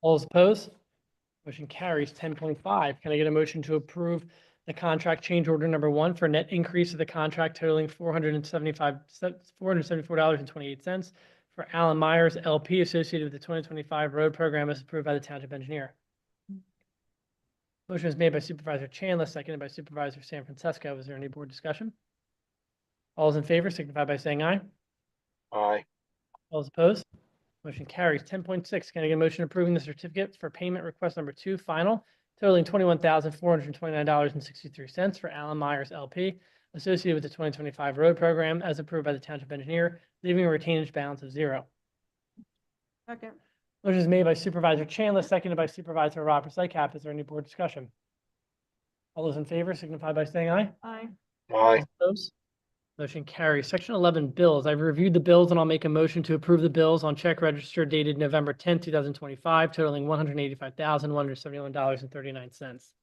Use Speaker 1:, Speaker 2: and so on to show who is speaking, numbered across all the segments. Speaker 1: All those opposed? Motion carries. Ten point five, can I get a motion to approve the contract change order number one for a net increase of the contract totaling four hundred and seventy-five, four hundred and seventy-four dollars and twenty-eight cents for Alan Myers LP associated with the twenty twenty-five road program as approved by the township engineer. Motion is made by Supervisor Chandler, seconded by Supervisor San Francisco. Is there any board discussion? All those in favor signify by saying aye.
Speaker 2: aye,
Speaker 1: All those opposed? Motion carries. Ten point six, can I get a motion approving the certificate for payment request number two, final, totaling twenty-one thousand, four hundred and twenty-nine dollars and sixty-three cents for Alan Myers LP associated with the twenty twenty-five road program as approved by the township engineer, leaving a retainage balance of zero.
Speaker 3: Second.
Speaker 1: Motion is made by Supervisor Chandler, seconded by Supervisor Roberts Lycap. Is there any board discussion? All those in favor signify by saying aye.
Speaker 3: Aye.
Speaker 2: aye,
Speaker 1: Those? Motion carries. Section eleven, bills. I've reviewed the bills and I'll make a motion to approve the bills on check register dated November tenth, two thousand twenty-five totaling one hundred eighty-five thousand, one hundred seventy-one dollars and thirty-nine cents.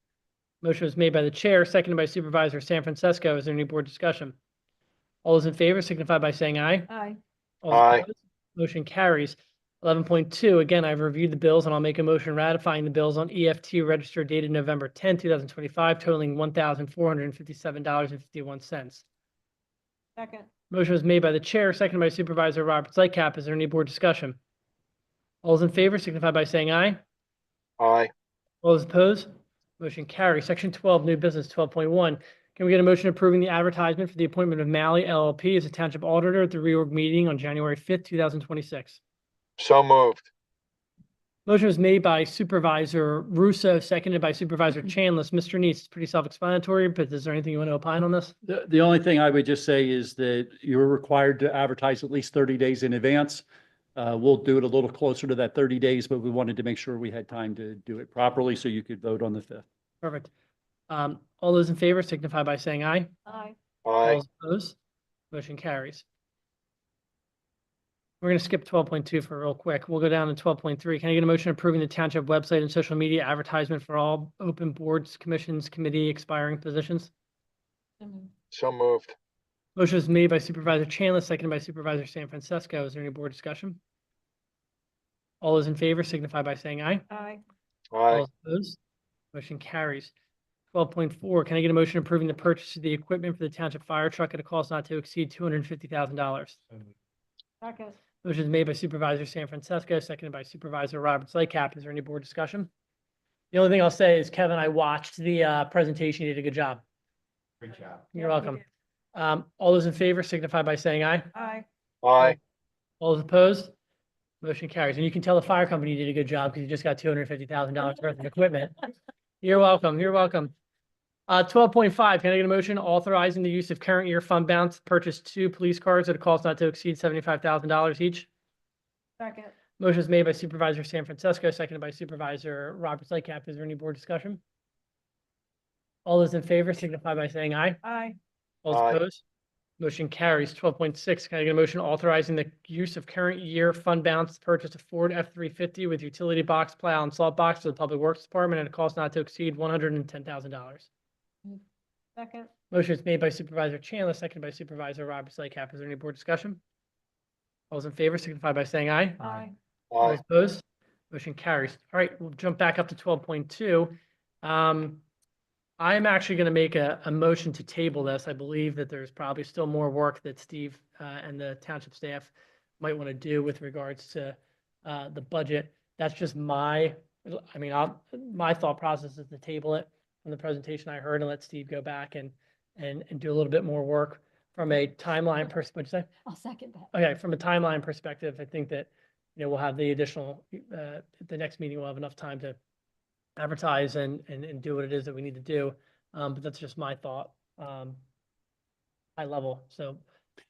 Speaker 1: Motion was made by the chair, seconded by Supervisor San Francisco. Is there any board discussion? All those in favor signify by saying aye.
Speaker 3: Aye.
Speaker 1: All those
Speaker 2: Aye.
Speaker 1: opposed? Motion carries. Eleven point two, again, I've reviewed the bills and I'll make a motion ratifying the bills on E EFT register dated November tenth, two thousand twenty-five totaling one thousand four hundred and fifty-seven dollars and fifty-one cents.
Speaker 3: Second.
Speaker 1: Motion was made by the chair, seconded by Supervisor Roberts Lightcap. Is there any board discussion? All those in favor signify by saying aye.
Speaker 2: aye,
Speaker 1: All those opposed? Motion carries. Section twelve, new business, twelve point one. Can we get a motion approving the advertisement for the appointment of Malley LLP as a township auditor at the reorg meeting on January fifth, two thousand twenty-six?
Speaker 2: so moved,
Speaker 1: Motion was made by Supervisor Russo, seconded by Supervisor Chanlis. Mr. Neese, it's pretty self-explanatory, but is there anything you want to opine on this?
Speaker 4: The, the only thing I would just say is that you're required to advertise at least thirty days in advance. Uh, we'll do it a little closer to that thirty days, but we wanted to make sure we had time to do it properly so you could vote on the fifth.
Speaker 1: Perfect. Um, all those in favor signify by saying aye.
Speaker 3: Aye.
Speaker 1: All
Speaker 2: aye,
Speaker 1: those opposed? Motion carries. We're going to skip twelve point two for real quick. We'll go down to twelve point three. Can I get a motion approving the township website and social media advertisement for all open boards, commissions, committee expiring positions?
Speaker 3: So moved.
Speaker 2: so moved,
Speaker 1: Motion is made by Supervisor Chandler, seconded by Supervisor San Francisco. Is there any board discussion? All those in favor signify by saying aye.
Speaker 3: Aye.
Speaker 2: aye,
Speaker 1: All opposed? Motion carries. Twelve point four, can I get a motion approving the purchase of the equipment for the township fire truck at a cost not to exceed two hundred and fifty thousand dollars?
Speaker 3: Second.
Speaker 1: Motion is made by Supervisor San Francisco, seconded by Supervisor Roberts Lycap. Is there any board discussion? The only thing I'll say is Kevin, I watched the uh presentation. You did a good job.
Speaker 5: Great job.
Speaker 1: You're
Speaker 3: Yeah, we
Speaker 1: welcome.
Speaker 3: did.
Speaker 1: Um, all those in favor signify by saying aye.
Speaker 3: Aye.
Speaker 2: aye,
Speaker 1: All those opposed? Motion carries. And you can tell the fire company you did a good job because you just got two hundred and fifty thousand dollars worth of equipment. You're welcome. You're welcome. Uh, twelve point five, can I get a motion authorizing the use of current year fund balance to purchase two police cars at a cost not to exceed seventy-five thousand dollars each?
Speaker 3: Second.
Speaker 1: Motion is made by Supervisor San Francisco, seconded by Supervisor Roberts Lightcap. Is there any board discussion? All those in favor signify by saying aye.
Speaker 3: Aye.
Speaker 1: All
Speaker 2: Aye.
Speaker 1: those opposed? Motion carries. Twelve point six, can I get a motion authorizing the use of current year fund balance to purchase a Ford F three fifty with utility box plow and salt box to the Public Works Department at a cost not to exceed one hundred and ten thousand dollars?
Speaker 3: Second.
Speaker 1: Motion is made by Supervisor Chandler, seconded by Supervisor Roberts Lycap. Is there any board discussion? All those in favor signify by saying aye.
Speaker 3: Aye.
Speaker 1: All
Speaker 2: aye,
Speaker 1: opposed? Motion carries. All right, we'll jump back up to twelve point two. Um, I'm actually going to make a, a motion to table this. I believe that there's probably still more work that Steve, uh, and the township staff might want to do with regards to, uh, the budget. That's just my, I mean, I'll, my thought process is to table it from the presentation I heard and let Steve go back and, and, and do a little bit more work from a timeline perspective. What'd you say?
Speaker 3: I'll second that.
Speaker 1: Okay, from a timeline perspective, I think that, you know, we'll have the additional, uh, at the next meeting, we'll have enough time to advertise and, and, and do what it is that we need to do. Um, but that's just my thought, um, high level, so.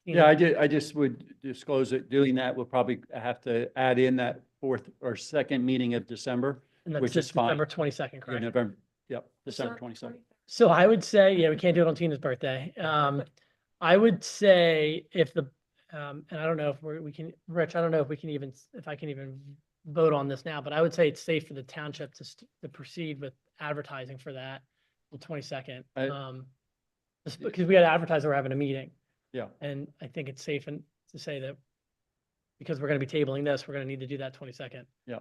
Speaker 1: you know,
Speaker 4: Yeah, I ju- I just would disclose that doing that, we'll probably have to add in that fourth or second meeting of December,
Speaker 1: and that's
Speaker 4: which
Speaker 1: just
Speaker 4: is fine.
Speaker 1: November twenty-second,
Speaker 4: or
Speaker 1: correct?
Speaker 4: November, yep, December twenty-second.
Speaker 1: So I would say, yeah, we can't do it on Tina's birthday. Um, I would say if the, um, and I don't know if we're, we can, Rich, I don't know if we can even, s- if I can even vote on this now, but I would say it's safe for the township to, st- to proceed with advertising for that the twenty-second.
Speaker 4: I-
Speaker 1: Um, just because we had advertised that we're having a meeting.
Speaker 4: Yeah.
Speaker 1: And I think it's safe and to say that because we're gonna be tabling this, we're gonna need to do that twenty-second.
Speaker 4: Yeah.